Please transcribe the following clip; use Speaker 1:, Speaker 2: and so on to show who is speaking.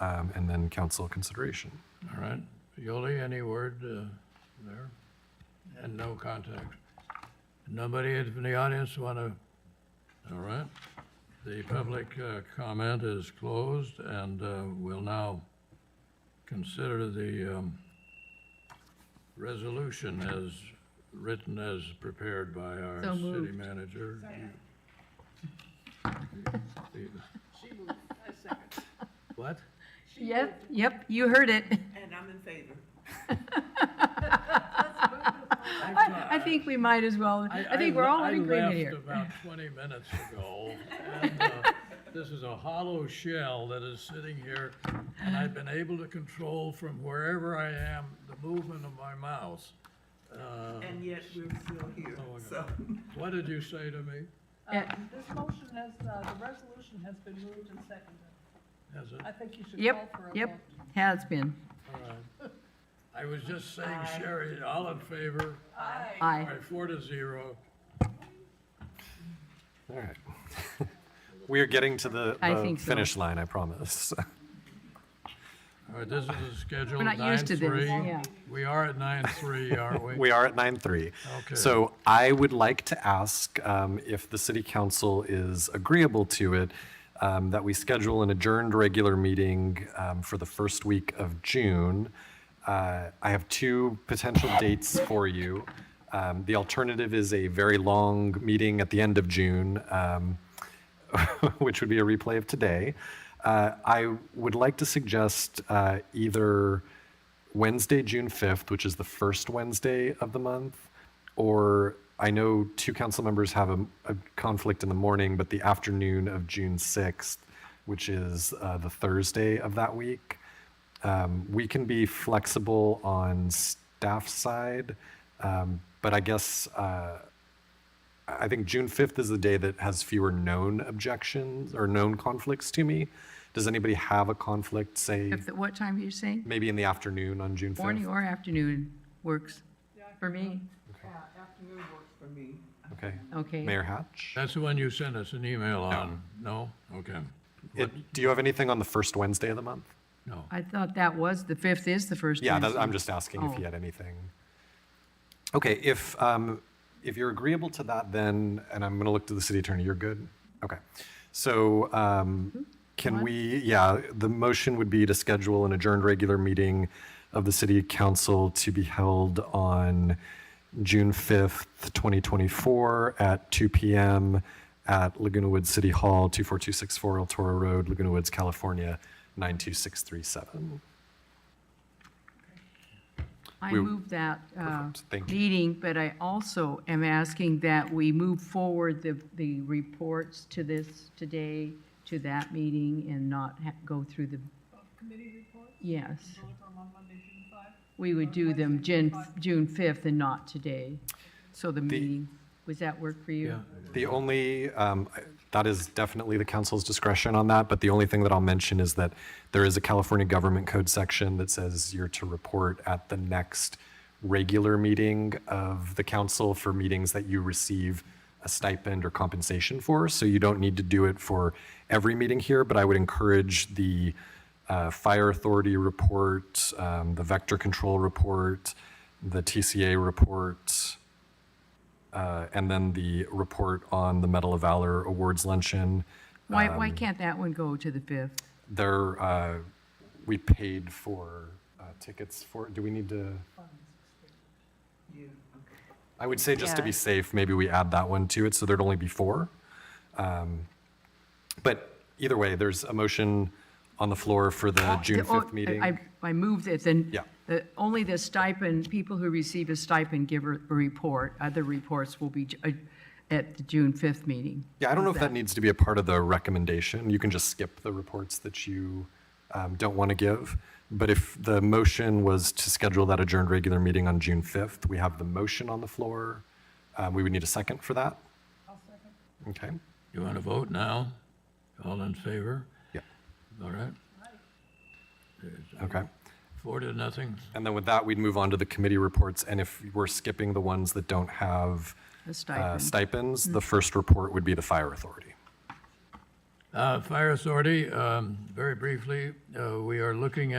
Speaker 1: um, and then council consideration.
Speaker 2: All right. Yoli, any word uh, there? And no contact. Nobody in the audience want to, all right. The public uh, comment is closed, and uh, we'll now consider the um, resolution as written, as prepared by our
Speaker 3: So
Speaker 2: city
Speaker 3: moved.
Speaker 2: manager. You-
Speaker 4: She moved, I second.
Speaker 2: What?
Speaker 4: She
Speaker 3: Yep, yep, you heard it.
Speaker 4: moved, And I'm in favor.
Speaker 3: I, I think we might as well, I think we're all in agreement here.
Speaker 2: I left about 20 minutes ago, and uh, this is a hollow shell that is sitting here, and I've been able to control from wherever I am the movement of my mouse. Uh,
Speaker 4: And yet we're still here,
Speaker 2: Oh, my
Speaker 4: so.
Speaker 2: What did you say to me?
Speaker 3: Yeah.
Speaker 5: Um, This motion has, uh, the resolution has been moved and seconded.
Speaker 2: Has it-
Speaker 5: I think you should call
Speaker 3: Yep,
Speaker 5: for a vote.
Speaker 3: yep, has been.
Speaker 2: all right. I was just saying, Sherry, all in favor? All
Speaker 3: Aye.
Speaker 2: right, four to zero.
Speaker 1: All right. We are getting to the
Speaker 3: I
Speaker 1: the
Speaker 3: think so.
Speaker 1: finish line, I promise.
Speaker 2: All right, this is a scheduled
Speaker 3: We're not used to this,
Speaker 2: 9-3.
Speaker 3: yeah.
Speaker 2: We are at 9-3, aren't we?
Speaker 1: We are at nine three.
Speaker 2: Okay.
Speaker 1: So I would like to ask um, if the city council is agreeable to it, um, that we schedule an adjourned regular meeting um, for the first week of June. Uh, I have two potential dates for you. Um, The alternative is a very long meeting at the end of June. um, which would be a replay of today. Uh, I would like to suggest uh, either Wednesday, June 5th, which is the first Wednesday of the month, or I know two council members have a, a conflict in the morning, but the afternoon of June 6th, which is uh, the Thursday of that week. Um, we can be flexible on staff side, um, but I guess. Uh, I think June 5th is the day that has fewer known objections or known conflicts to me. Does anybody have a conflict, say,
Speaker 3: If, the- what time are you saying?
Speaker 1: maybe in the afternoon on June 5th?
Speaker 3: Morning or afternoon works for me.
Speaker 4: Uh, Afternoon works for me.
Speaker 1: Okay.
Speaker 3: Okay.
Speaker 1: Mayor Hatch?
Speaker 2: That's the one you sent us an email on? No? Okay.
Speaker 1: It- Do you have anything on the first Wednesday of the month?
Speaker 2: No.
Speaker 3: I thought that was, the 5th is the first
Speaker 1: Yeah, that,
Speaker 3: Wednesday.
Speaker 1: I'm just asking if
Speaker 3: Oh.
Speaker 1: you had anything. Okay, if, um, if you're agreeable to that, then, and I'm gonna look to the city attorney, you're good? Okay, so,
Speaker 3: Mm-hmm.
Speaker 1: um, can we, yeah, the motion would be to schedule an adjourned regular meeting of the city council to be held on June fifth, twenty twenty-four at two PM at Laguna Woods City Hall, two four two six four El Toro Road, Laguna Woods, California, nine two six three seven.
Speaker 3: I
Speaker 1: we-
Speaker 3: move that uh,
Speaker 1: Perfect, thank you.
Speaker 3: meeting, but I also am asking that we move forward the, the reports to this today, to that meeting, and not ha- go through the,
Speaker 5: Committee report,
Speaker 3: yes.
Speaker 5: vote on on Monday, June 5.
Speaker 3: We would do them June, June 5th and not today. So the meeting, was that work for you?
Speaker 2: Yeah.
Speaker 1: The only, um, I- that is definitely the council's discretion on that, but the only thing that I'll mention is that there is a California Government Code section that says you're to report at the next regular meeting of the council for meetings that you receive a stipend or compensation for. So you don't need to do it for every meeting here, but I would encourage the uh, fire authority report, um, the vector control report, the TCA report, uh, and then the report on the Medal of Valor Awards luncheon.
Speaker 3: Why, why
Speaker 1: Um,
Speaker 3: can't that one go to the 5th?
Speaker 1: There, uh, we paid for uh, tickets for, do we need to?
Speaker 4: Yeah, okay.
Speaker 1: I would say just to be safe, maybe we add that one to it, so there'd only be four. Um, But either way, there's a motion on the floor for the June
Speaker 3: The- oh,
Speaker 1: 5th meeting.
Speaker 3: I, I move that then.
Speaker 1: Yeah.
Speaker 3: the- Uh, Only the stipend, people who receive a stipend give a a report. Other reports will be j- uh, at the June 5th meeting.
Speaker 1: Yeah, I don't know if
Speaker 3: How's
Speaker 1: that needs to be a part of the recommendation. You can just skip the reports that you um, don't want to give. But if the motion was to schedule that adjourned regular meeting on June 5th, we have the motion on the floor. Uh, We would need a second for that. I'll second. Okay.
Speaker 2: You want to vote now? All in favor?
Speaker 1: Yeah,
Speaker 2: All right,
Speaker 1: okay.
Speaker 2: four to nothing.
Speaker 1: And then with that, we'd move on to the committee reports. And if we're skipping the ones that don't have
Speaker 3: A
Speaker 1: uh,
Speaker 3: stipend.
Speaker 1: stipends, the first report would be the fire authority.
Speaker 2: Uh, Fire Authority, um, very briefly, uh, we are looking at.